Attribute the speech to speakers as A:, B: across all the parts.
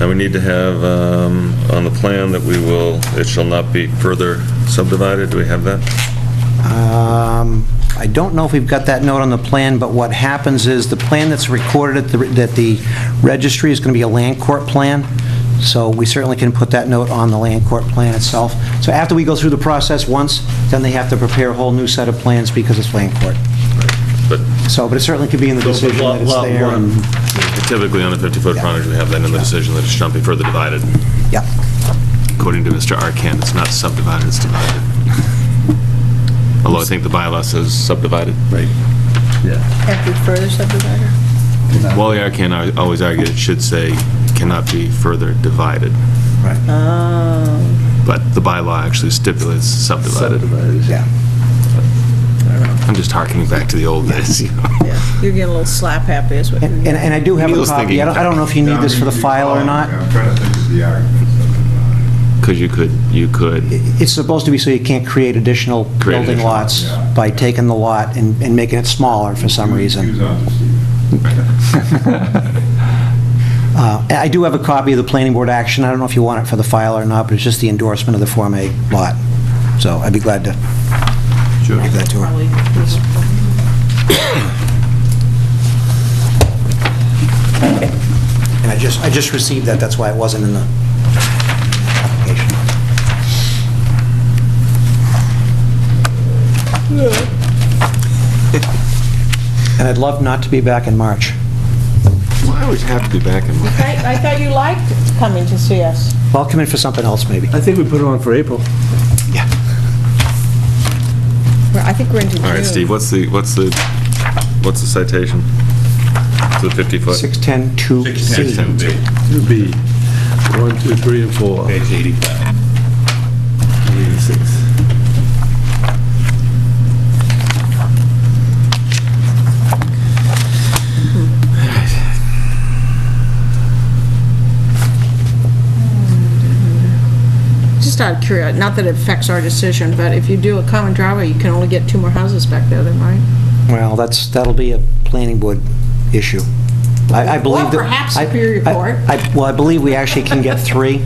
A: Now, we need to have um, on the plan that we will, it shall not be further subdivided. Do we have that?
B: Um, I don't know if we've got that note on the plan, but what happens is, the plan that's recorded at the, that the registry is going to be a land court plan, so we certainly can put that note on the land court plan itself. So after we go through the process once, then they have to prepare a whole new set of plans because it's land court.
A: But
B: So, but it certainly could be in the decision that it's
C: Lot
B: there.
C: one,
A: typically, on a 50-foot frontage, we have that in the decision that it shall not be further divided.
B: Yeah.
A: According to Mr. Arcan, it's not subdivided, it's divided. Although I think the bylaw says subdivided. Right.
C: yeah.
D: Can't be further subdivided.
A: Wally Arcan al- always argued it should say cannot be further divided,
B: Right.
A: but the bylaw actually stipulates subdivided.
C: Subdivided.
B: Yeah.
A: I'm just harkening back to the old days, you know.
D: Yeah, you're getting a little slap happy is what you're
B: And, and-
D: getting.
B: and I do have a
A: Neil's
B: copy. I don't, I don't know if you need this for the file or not.
E: I'm trying to think of the argument.
A: Because you could, you could
B: It's supposed to be so you can't create additional
A: Create
B: building
A: additional,
B: lots
E: yeah.
B: by taking the lot and, and making it smaller for some reason.
E: He was on to Steve.
B: Uh, I do have a copy of the planning board action. I don't know if you want it for the file or not, but it's just the endorsement of the Form A lot. So I'd be glad to give that to her. And I just, I just received that, that's why it wasn't in the application. And I'd love not to be back in March.
A: Why would you have to be back in?
D: I I thought you liked coming to see us.
B: Well, I'll come in for something else, maybe.
C: I think we put it on for April.
D: Well, I think we're into June.
A: All right, Steve, what's the, what's the, what's the citation to the 50 foot?
B: 610-2C.
C: It'll be one, two, three, and four. Page 85. 86.
D: Just out of curiosity, not that it affects our decision, but if you do a common driveway, you can only get two more houses back there then, right?
B: Well, that's, that'll be a planning board issue. I I believe that...
D: Or perhaps
B: I-
D: Superior
B: I-
D: Court.
B: I- Well, I believe we actually can get three,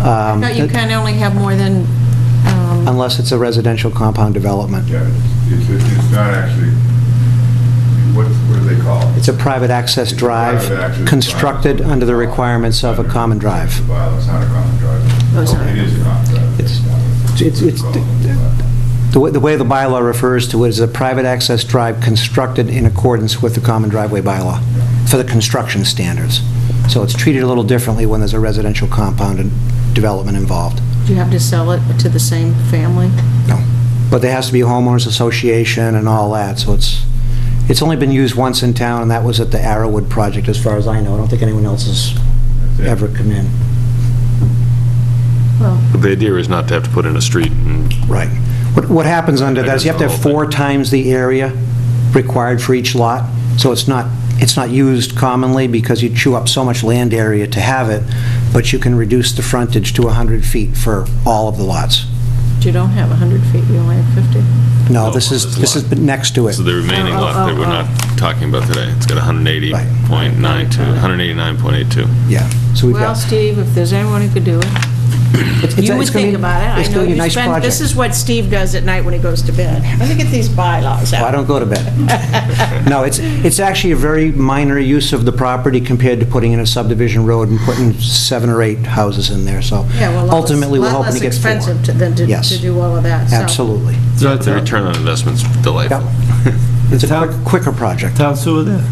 B: um,
D: No, you can only have more than, um,
B: unless it's a residential compound development.
E: Yeah, it's, it's- it's not actually, what, what do they call it?
B: It's a private access
E: It's a
B: drive
E: private access drive.
B: constructed under the requirements of a common drive.
E: Well, it's not a common drive.
D: Oh, it's not.
E: It is a common drive.
B: It's- it's- it's- The way the way the bylaw refers to it is a private access drive constructed in accordance with the common driveway bylaw for the construction standards. So it's treated a little differently when there's a residential compound and development involved.
D: do you have to sell it to the same family?
B: No. But there has to be a homeowners association and all that, so it's, it's only been used once in town, and that was at the Arrowwood project, as far as I know. I don't think anyone else has
E: That's it.
B: ever come in.
D: Well,
A: The idea is not to have to put in a street and
B: Right. What, what happens under that is you have to have
A: That is the whole
B: four times the area required for each lot, so it's not, it's not used commonly because you chew up so much land area to have it, but you can reduce the frontage to 100 feet for all of the lots.
D: you don't have 100 feet, you only have 50.
B: No, this is, this is next to it.
A: So the remaining
D: Oh, oh,
A: lot that we're
D: oh,
A: not talking about today, it's got 180.92,
B: Right.
A: 189.82.
B: Yeah. So we've
D: Well,
B: got,
D: Steve, if there's anyone who could do it,
B: it's- it's
D: you would
B: it's gonna be-
D: think about it. I
B: It's
D: know
B: going to be a
D: you
B: nice
D: spend-
B: project.
D: This is what Steve does at night when he goes to bed. Let me get these bylaws
B: Well, I
D: out.
B: don't go to bed. No, it's, it's actually a very minor use of the property compared to putting in a subdivision road and putting seven or eight houses in there, so
D: Yeah, well, a lot less-
B: ultimately, we're hoping to get
D: Lot less
B: four.
D: expensive to- than to-
B: Yes.
D: to do all of that, so.
B: Absolutely.
C: So that's
A: The
C: a
A: return on investment's delightful.
B: It's a
C: town-
B: quick- quicker project.
C: town sewer there.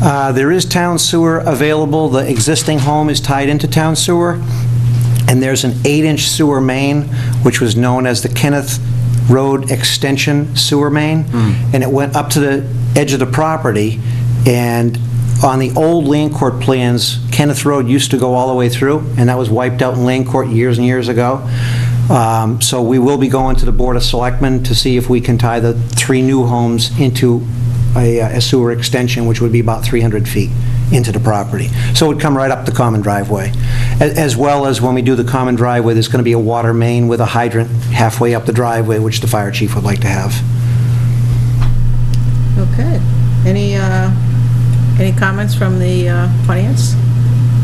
B: Uh, There is town sewer available, the existing home is tied into town sewer, and there's an eight-inch sewer main, which was known as the Kenneth Road Extension Sewer Main, and it went up to the edge of the property, and on the old land court plans, Kenneth Road used to go all the way through, and that was wiped out in land court years and years ago. Um, So we will be going to the Board of Selectmen to see if we can tie the three new homes into a uh, a sewer extension, which would be about 300 feet into the property. So it would come right up the common driveway. A- As well as when we do the common driveway, there's going to be a water main with a hydrant halfway up the driveway, which the fire chief would like to have.
D: Okay. Any, uh, any comments from the uh, audience?